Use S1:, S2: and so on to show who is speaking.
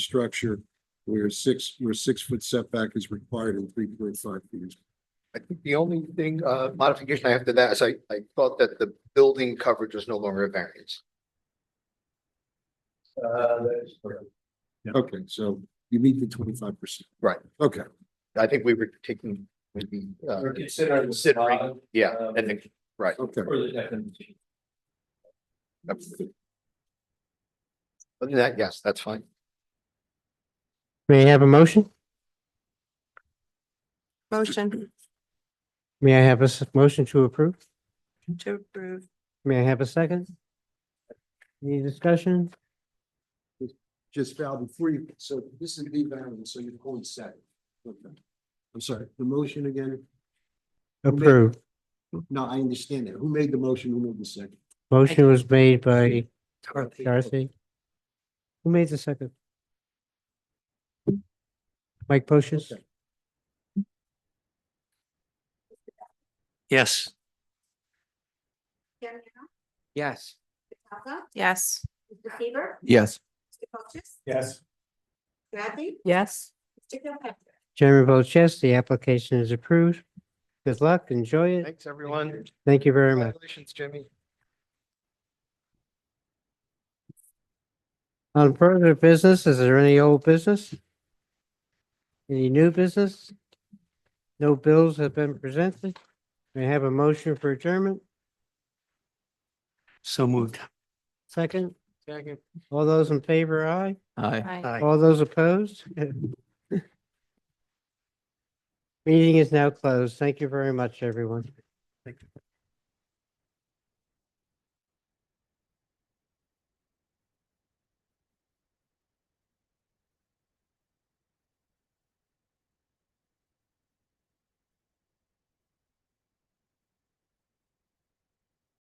S1: structure where six, where six foot setback is required in three point five feet.
S2: I think the only thing, uh, modification I have to that is I, I thought that the building coverage was no longer a variance.
S3: Uh,
S1: Okay, so you meet the twenty-five percent.
S2: Right.
S1: Okay,
S2: I think we were taking, maybe, uh,
S3: We're considering. the
S2: Considering,
S3: product
S2: yeah, and then,
S1: okay.
S3: For the definition.
S2: other than that, yes, that's fine.
S4: May I have a motion?
S5: Motion
S4: May I have a s- motion to approve?
S5: to approve.
S4: May I have a second? Any discussion?
S1: Just Val, before you, so this is the variance, so you're going second. Okay. I'm sorry, the motion again?
S4: Approved.
S1: No, I understand that. Who made the motion? Who made the second?
S4: Motion was made by
S5: Dorothy.
S4: Darcy. Who made the second? Mike Poshis?
S1: Okay.
S6: Yes,
S4: Yes.
S5: Yes.
S7: Mr. Seaver?
S6: yes,
S7: Mr. Colchis?
S3: Yes.
S7: Bradley?
S5: Yes.
S7: Mr. Kilpatrick?
S4: Chairman votes yes, the application is approved. Good luck, enjoy it.
S2: Thanks, everyone.
S4: Thank you very much.
S2: Congratulations, Jimmy.
S4: On further business, is there any old business? Any new business? No bills have been presented. May I have a motion for adjournment?
S6: so moved.
S4: Second? Second. All those in favor, aye?
S6: Aye.
S4: All those opposed? Meeting is now closed. Thank you very much, everyone.